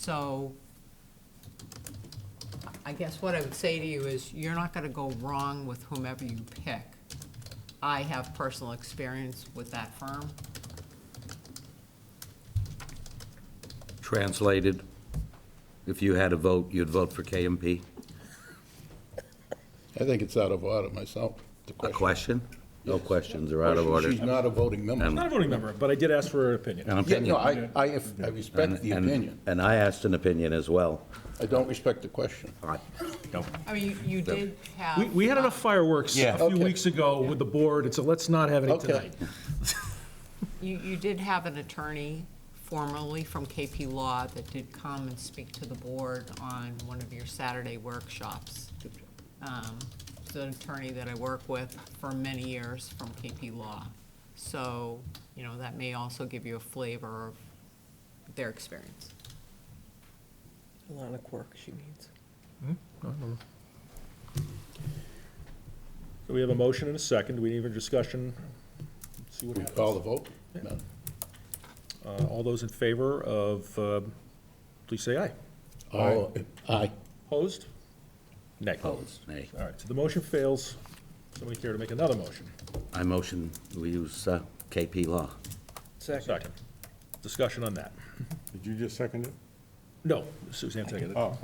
So I guess what I would say to you is, you're not gonna go wrong with whomever you pick. I have personal experience with that firm. Translated, if you had a vote, you'd vote for KMP? I think it's out of order myself, the A question. question? No questions are out of She- order. She's not a voting member. Not a voting member, but I did ask for an opinion. An Yeah, opinion. no, I, I, if- I respect the And- opinion. And I asked an opinion as well. I don't respect the question. No. I mean, you- you did have. We, we had enough fireworks Yeah. a few Okay. weeks ago with the board, and so let's not have any Okay. tonight. You, you did have an attorney formerly from KP Law that did come and speak to the board on one of your Saturday workshops. Um, It's an attorney that I work with for many years from KP Law. So, you know, that may also give you a flavor of their experience. A lot of work she needs. So We have a motion and a second. Do we need a discussion? See what We happens. call the vote? No. Uh, All those in favor of, uh, please say aye. All- Aye. Opposed? Nay. Opposed, nay. All right, so the motion fails. Somebody care to make another motion? I motion we use uh, KP Law. Second. Second. Discussion on that. Did you just second it? No, Suzanne, seconded. Oh, okay.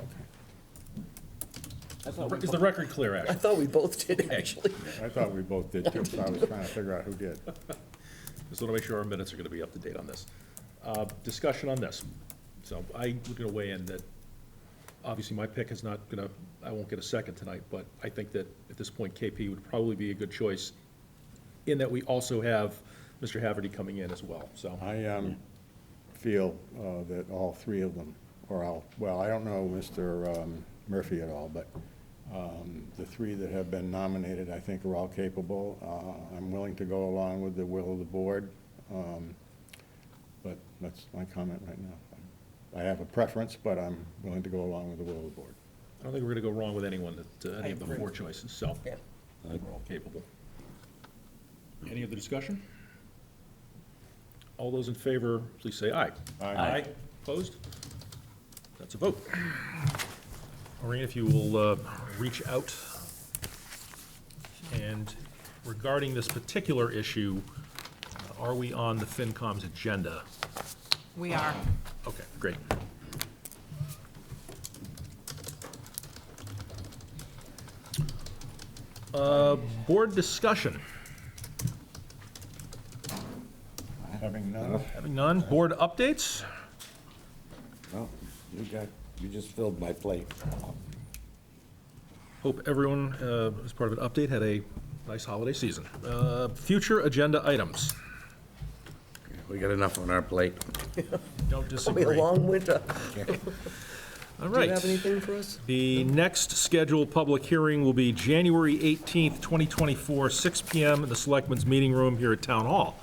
I thought we Is bo- the record clear, I Ashley? thought we both did, actually. I thought we both did too, so I was trying to figure out who did. Just want to make sure our minutes are going to be up to date on this. Uh, Discussion on this. So I was going to weigh in that, obviously, my pick is not going to, I won't get a second tonight, but I think that at this point, KP would probably be a good choice in that we also have Mr. Haverty coming in as well, so. I um, feel uh, that all three of them, or all, well, I don't know Mr. um, Murphy at all, but um, the three that have been nominated, I think are all capable. Uh, I'm willing to go along with the will of the board, um, but that's my comment right now. I have a preference, but I'm willing to go along with the will of the board. I don't think we're going to go wrong with anyone that, uh, any of the I agree. four choices, so. Yeah. I think We're all capable. Any other discussion? All those in favor, please say aye. Aye. Opposed? That's a vote. Maureen, if you will uh, reach out. And regarding this particular issue, uh, are we on the FinCom's agenda? We are, Okay, great. Uh, Board discussion. Having none, Having none, board updates? Well, you got, you just filled my plate. Hope everyone, uh, as part of an update, had a nice holiday season. Uh, Future agenda items. We got enough on our plate. Don't It'll be a disagree. All long winter. Do you have right. anything for us? The next scheduled public hearing will be January 18th, 2024, 6 PM in the Selectmen's Meeting Room here at Town Hall.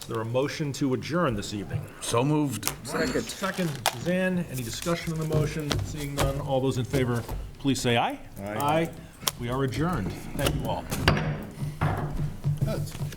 Is there a motion to adjourn this evening? So moved. Second. Second, Suzanne, any discussion on the motion? Seeing none, all those in favor, please say aye. Aye. We are adjourned. Thank you all. That's